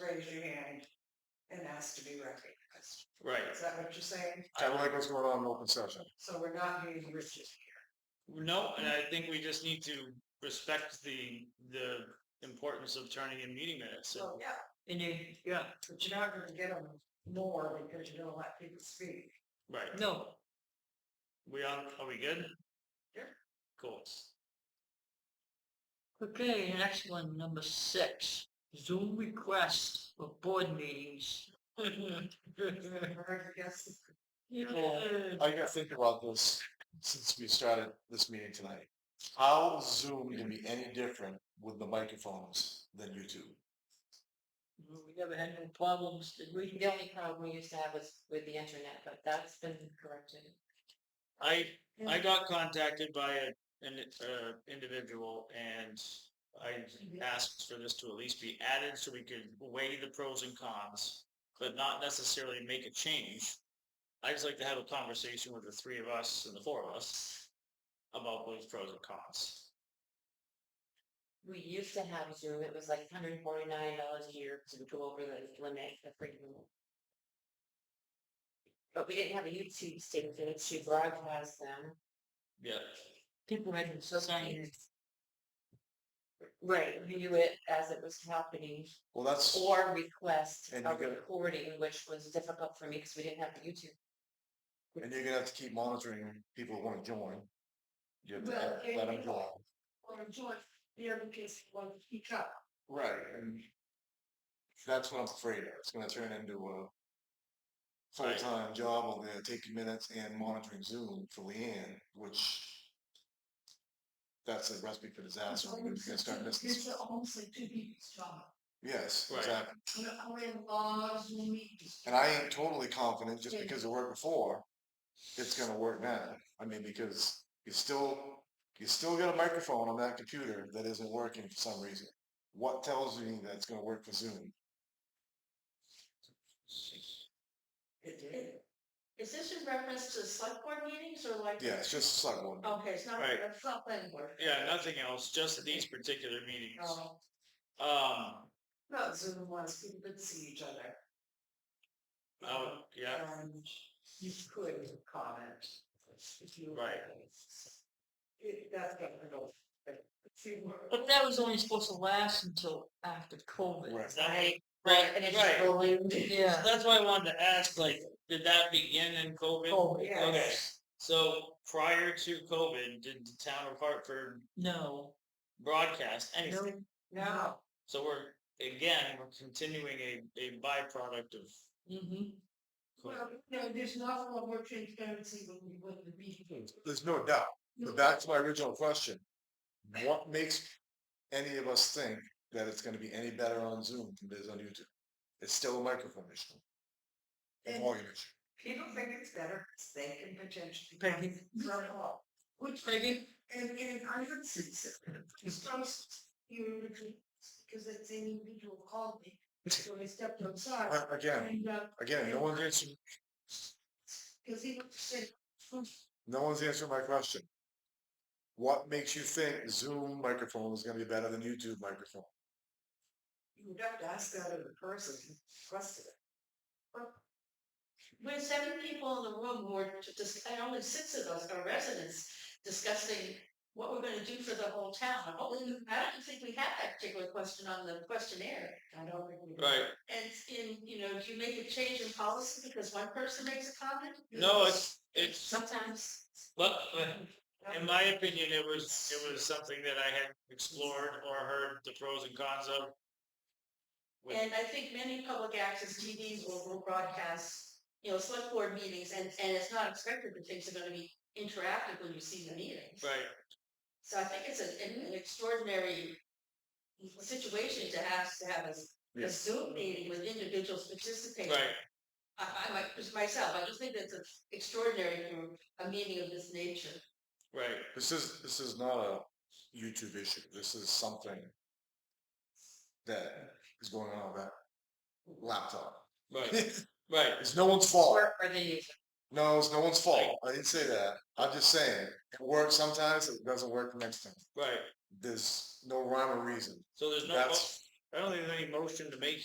raise your hand and ask to be recognized. Right. Is that what you're saying? I don't like what's going on in open session. So we're not being rigid here. No, and I think we just need to respect the, the importance of turning in meeting minutes. So, Oh, yeah, And you, Yeah. but you're not gonna get them more because you don't let people speak. Right. no, We on, are we good? Yeah. Cool. okay, next one, number six, Zoom requests for board meetings. Or I guess it's Yeah. I gotta think about this since we started this meeting tonight. How is Zoom can be any different with the microphones than YouTube? We never had no problems, did we? The only problem we used to have was with the internet, but that's been corrected. I, I got contacted by a, an, uh, individual and I asked for this to at least be added so we could weigh the pros and cons, but not necessarily make a change. I just like to have a conversation with the three of us and the four of us about those pros and cons. We used to have Zoom, it was like hundred and forty-nine dollars a year to go over the limit, the free limit. But we didn't have a YouTube station to broadcast them. Yeah. People had signs. Right, view it as it was happening, Well, that's, or request And a you gotta- recording, which was difficult for me because we didn't have the YouTube. and you're gonna have to keep monitoring people who wanna join. You have to Well, let- let them and- join. Or join the other kids want to speak up. Right, and that's what I'm afraid of. It's gonna turn into a Right. full-time job over there, taking minutes and monitoring Zoom for Leanne, which that's a recipe for disaster. We're gonna start missing It's some- almost like two people's job. Yes, Right. exactly. We're, we're in laws, we need to. And I ain't totally confident just because it worked before, it's gonna work now. I mean, because you still, you still got a microphone on that computer that isn't working for some reason. What tells me that it's gonna work for Zoom? It did. Is this in reference to select board meetings or like? Yeah, it's just a select board. Okay, it's not, Right. it's not planning board. Yeah, nothing else, just these particular meetings. Oh. Oh. No, Um, not Zoom ones, people could see each other. oh, yeah, And you could comment if you. Right. It, that's what I don't, think. see, we're- But that was only supposed to last until after COVID. Right. Right, Right, and it's right. rolling. Yeah. that's why I wanted to ask, like, did that begin in Oh, COVID? COVID, yeah. Okay, so prior to COVID, did the town of Hartford no, broadcast no, anything? now, So we're, again, we're continuing a, a byproduct of mm-hmm. Well, no, there's not a lot more transparency when we went to the meeting. There's no doubt, but back to my original question. What makes any of us think that it's gonna be any better on Zoom than it is on YouTube? It's still a microphone issue. A And- volume issue. People think it's better, 'cause they can potentially. Peggy. Run it off. Which, Peggy? and, and I would say, so, because you, because it's an individual called me, so I stepped outside. Uh, Again, And, uh, again, no one's answering, because he said, no one's answering my question. What makes you think Zoom microphone is gonna be better than YouTube microphone? you would have to ask that of the person who requested it. We had seven people in the room who were just, and only six of us are residents discussing what we're gonna do for the whole town. I don't think- I don't think we had that particular question on the questionnaire. I don't think we. Right, And in, you know, do you make a change in policy because one person makes a comment? no, it's, it's, Sometimes. well, in my opinion, it was, it was something that I had explored or heard the pros and cons of. with- And I think many public access TVs will will broadcast, you know, select board meetings and, and it's not expected that things are gonna be interactive when you see the meetings. Right, So I think it's an, an- an extraordinary situation to have, to have a s- a Yes. Zoom meeting with individuals participating. right. I, I, like, just myself, I just think that's a- extraordinary for a meeting of this nature. Right, This is, this is not a YouTube issue, this is something that is going on with that laptop. right, right. It's no one's fault. Or or the user. No, it's no one's fault. I didn't say that. I'm just saying, it works sometimes, it doesn't work the next time. Right, There's no rhyme or reason. so there's no, mo- That's I don't think there's any motion to make